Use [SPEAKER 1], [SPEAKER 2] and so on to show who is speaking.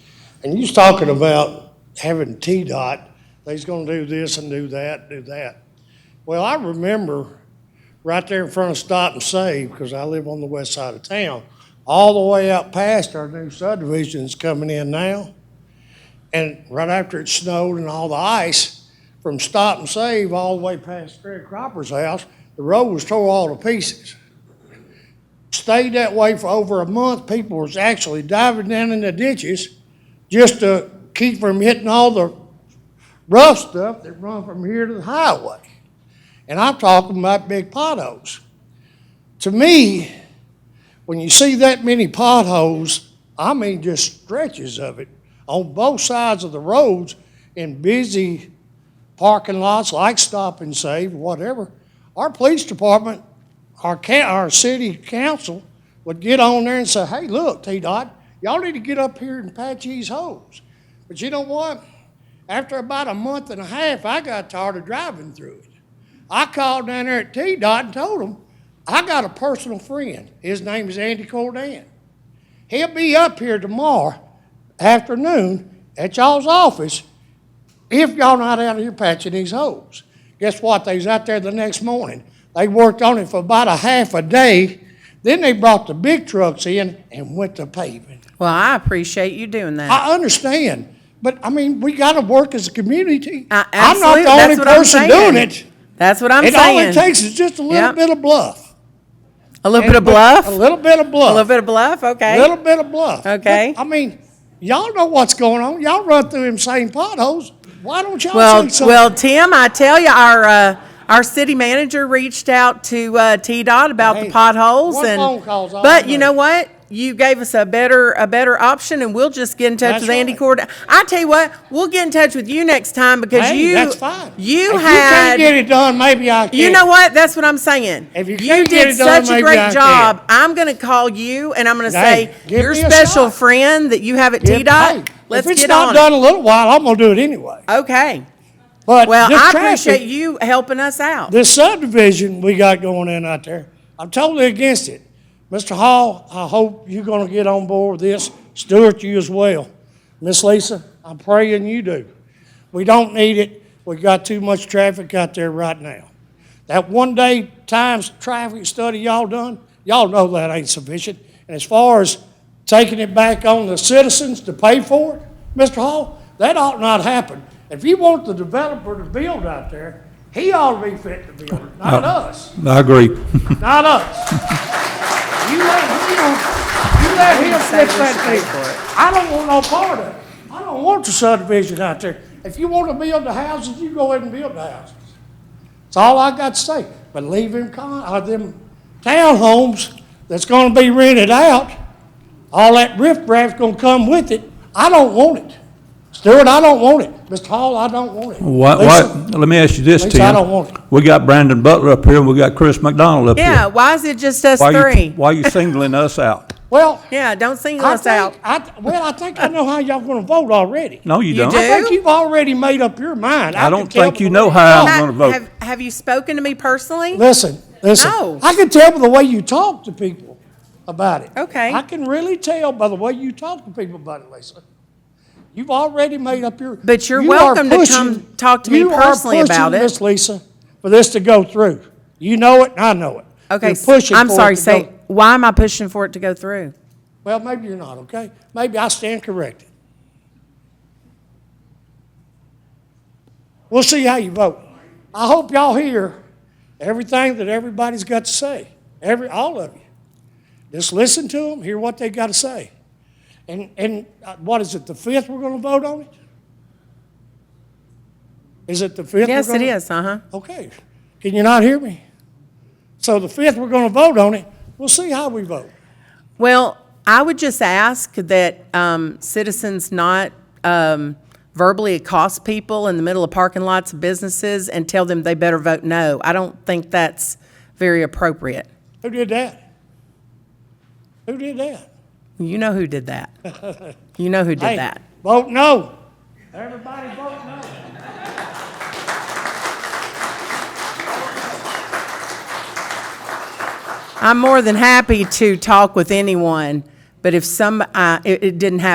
[SPEAKER 1] And you was talking about having T-Dot, they's gonna do this and do that, do that. Well, I remember right there in front of Stop and Save, because I live on the west side of town, all the way out past our new subdivisions coming in now. And right after it snowed and all the ice, from Stop and Save all the way past Fred Cropper's house, the road was tore all to pieces stayed that way for over a month. People was actually diving down in the ditches just to keep from hitting all the rough stuff that run from here to the highway. And I'm talking about big potholes. To me, when you see that many potholes, I mean just stretches of it on both sides of the roads in busy parking lots like Stop and Save, whatever, our police department our coun, our city council would get on there and say, hey, look, T-Dot, y'all need to get up here and patch these holes. But you know what? After about a month and a half, I got tired of driving through it. I called down there at T-Dot and told them, I got a personal friend. His name is Andy Cordan. He'll be up here tomorrow afternoon at y'all's office if y'all not out here patching these holes. Guess what? They was out there the next morning. They worked on it for about a half a day. Then they brought the big trucks in and went to paving.
[SPEAKER 2] Well, I appreciate you doing that.
[SPEAKER 1] I understand, but I mean, we gotta work as a community.
[SPEAKER 2] I,
[SPEAKER 1] I'm not
[SPEAKER 2] absolutely,
[SPEAKER 1] the
[SPEAKER 2] that's
[SPEAKER 1] only
[SPEAKER 2] what I'm
[SPEAKER 1] person
[SPEAKER 2] saying.
[SPEAKER 1] doing it.
[SPEAKER 2] That's what I'm
[SPEAKER 1] It all
[SPEAKER 2] saying.
[SPEAKER 1] it takes is just a little
[SPEAKER 2] Yep.
[SPEAKER 1] bit of bluff.
[SPEAKER 2] a little bit of bluff.
[SPEAKER 1] A little bit of
[SPEAKER 2] A
[SPEAKER 1] bluff.
[SPEAKER 2] little bit of bluff. Okay.
[SPEAKER 1] Little bit of bluff.
[SPEAKER 2] Okay.
[SPEAKER 1] But, I mean, y'all know what's going on. Y'all run through them same potholes. Why don't y'all
[SPEAKER 2] well,
[SPEAKER 1] say something?
[SPEAKER 2] well, Tim, I tell you, our uh, our city manager reached out to uh, T Dot about
[SPEAKER 1] Hey,
[SPEAKER 2] the potholes,
[SPEAKER 1] one
[SPEAKER 2] and
[SPEAKER 1] phone call's all
[SPEAKER 2] but
[SPEAKER 1] it
[SPEAKER 2] you know
[SPEAKER 1] takes.
[SPEAKER 2] what? You gave us a better a better option, and we'll just get in touch
[SPEAKER 1] That's
[SPEAKER 2] with Andy
[SPEAKER 1] right.
[SPEAKER 2] Cord. I tell you what, we'll get in touch with you next time because
[SPEAKER 1] Hey,
[SPEAKER 2] you
[SPEAKER 1] that's fine.
[SPEAKER 2] you
[SPEAKER 1] if
[SPEAKER 2] had
[SPEAKER 1] you can't get it done, maybe I can.
[SPEAKER 2] You know what? That's what I'm saying.
[SPEAKER 1] If you can't get
[SPEAKER 2] did
[SPEAKER 1] it done,
[SPEAKER 2] such a
[SPEAKER 1] maybe I
[SPEAKER 2] great
[SPEAKER 1] can.
[SPEAKER 2] job. I'm going to call you and I'm going to
[SPEAKER 1] Hey,
[SPEAKER 2] say,
[SPEAKER 1] give
[SPEAKER 2] your
[SPEAKER 1] me a
[SPEAKER 2] special
[SPEAKER 1] shot."
[SPEAKER 2] friend that you have at
[SPEAKER 1] If-
[SPEAKER 2] T
[SPEAKER 1] hey,
[SPEAKER 2] Dot, let's
[SPEAKER 1] if it's
[SPEAKER 2] get
[SPEAKER 1] not
[SPEAKER 2] on.
[SPEAKER 1] done in a little while, I'm gonna do it anyway.
[SPEAKER 2] it. Okay.
[SPEAKER 1] But
[SPEAKER 2] Well,
[SPEAKER 1] this
[SPEAKER 2] I
[SPEAKER 1] traffic,
[SPEAKER 2] appreciate you helping us out.
[SPEAKER 1] this subdivision we got going in out there. I'm totally against it. Mr. Hall, I hope you're gonna get on board with this. Stuart, you as well. Miss Lisa, I'm praying you do. We don't need it. We got too much traffic out there right now. That one day times traffic study y'all done, y'all know that ain't sufficient. And as far as taking it back on the citizens to pay for it, Mr. Hall, that ought not happen. If you want the developer to build out there, he ought to be fit to build, it, not us,
[SPEAKER 3] I agree.
[SPEAKER 1] not us. You let him, you let him
[SPEAKER 2] say
[SPEAKER 1] fix
[SPEAKER 2] we should
[SPEAKER 1] that
[SPEAKER 2] pay
[SPEAKER 1] thing.
[SPEAKER 2] for it.
[SPEAKER 1] I don't want no part of it. I don't want the subdivision out there. If you want to build the houses, you go ahead and build the houses. That's all I got to say. But leave them con, uh, them townhomes that's gonna be rented out, all that riffraff's gonna come with it. I don't want it. Stewart, I don't want it. Mr. Hall, I don't want it.
[SPEAKER 3] What,
[SPEAKER 1] Lisa,
[SPEAKER 3] what, let me ask you this,
[SPEAKER 1] Lisa,
[SPEAKER 3] Tim.
[SPEAKER 1] I don't want it.
[SPEAKER 3] We got Brandon Butler up here, and we got Chris McDonald up here.
[SPEAKER 2] Yeah, why is it just us
[SPEAKER 3] Why you-
[SPEAKER 2] three?
[SPEAKER 3] Why are you singling us out?
[SPEAKER 1] Well,
[SPEAKER 2] Yeah, don't single
[SPEAKER 1] I
[SPEAKER 2] us out.
[SPEAKER 1] think, I, well, I think I know how y'all gonna vote already.
[SPEAKER 3] No, you
[SPEAKER 2] You
[SPEAKER 3] don't.
[SPEAKER 2] do?
[SPEAKER 1] I think you've already made up your mind.
[SPEAKER 3] I
[SPEAKER 1] can
[SPEAKER 3] don't
[SPEAKER 1] tell
[SPEAKER 3] think
[SPEAKER 1] by
[SPEAKER 3] you
[SPEAKER 1] the
[SPEAKER 3] know
[SPEAKER 1] way-
[SPEAKER 3] how.
[SPEAKER 2] Ha-
[SPEAKER 3] I'm gonna vote.
[SPEAKER 2] Have, have you spoken to me personally?
[SPEAKER 1] Listen, listen.
[SPEAKER 2] No.
[SPEAKER 1] I can tell by the way you talk to people about it.
[SPEAKER 2] Okay.
[SPEAKER 1] I can really tell by the way you talk to people about it, Lisa. You've already made up your.
[SPEAKER 2] But you're
[SPEAKER 1] you
[SPEAKER 2] welcome
[SPEAKER 1] are
[SPEAKER 2] to come
[SPEAKER 1] pushing-
[SPEAKER 2] talk to me personally
[SPEAKER 1] You are
[SPEAKER 2] about
[SPEAKER 1] pushing
[SPEAKER 2] it.
[SPEAKER 1] this, Lisa, for this to go through. You know it, and I know it.
[SPEAKER 2] Okay,
[SPEAKER 1] You're
[SPEAKER 2] s-
[SPEAKER 1] pushing
[SPEAKER 2] I'm
[SPEAKER 1] for it
[SPEAKER 2] sorry.
[SPEAKER 1] to
[SPEAKER 2] Say,
[SPEAKER 1] go-
[SPEAKER 2] why am I pushing for it to go through?
[SPEAKER 1] Well, maybe you're not, okay? Maybe I stand corrected. We'll see how you vote. I hope y'all hear everything that everybody's got to say, every, all of you. Just listen to them, hear what they got to say. And, and uh, what is it, the fifth we're gonna vote on it? Is it the fifth? we're
[SPEAKER 2] Yes, it
[SPEAKER 1] gonna-
[SPEAKER 2] is. Uh huh.
[SPEAKER 1] Okay, can you not hear me? So the fifth, we're gonna vote on it, we'll see how we vote.
[SPEAKER 2] Well, I would just ask that um, citizens not um, verbally accost people in the middle of parking lots of businesses and tell them they better vote no. I don't think that's very appropriate.
[SPEAKER 1] Who did that? Who did that?
[SPEAKER 2] You know who did that. You know who
[SPEAKER 1] Hey,
[SPEAKER 2] did that.
[SPEAKER 1] Vote no. Everybody vote no.
[SPEAKER 2] I'm more than happy to talk with anyone, but if some, I- it it didn't happen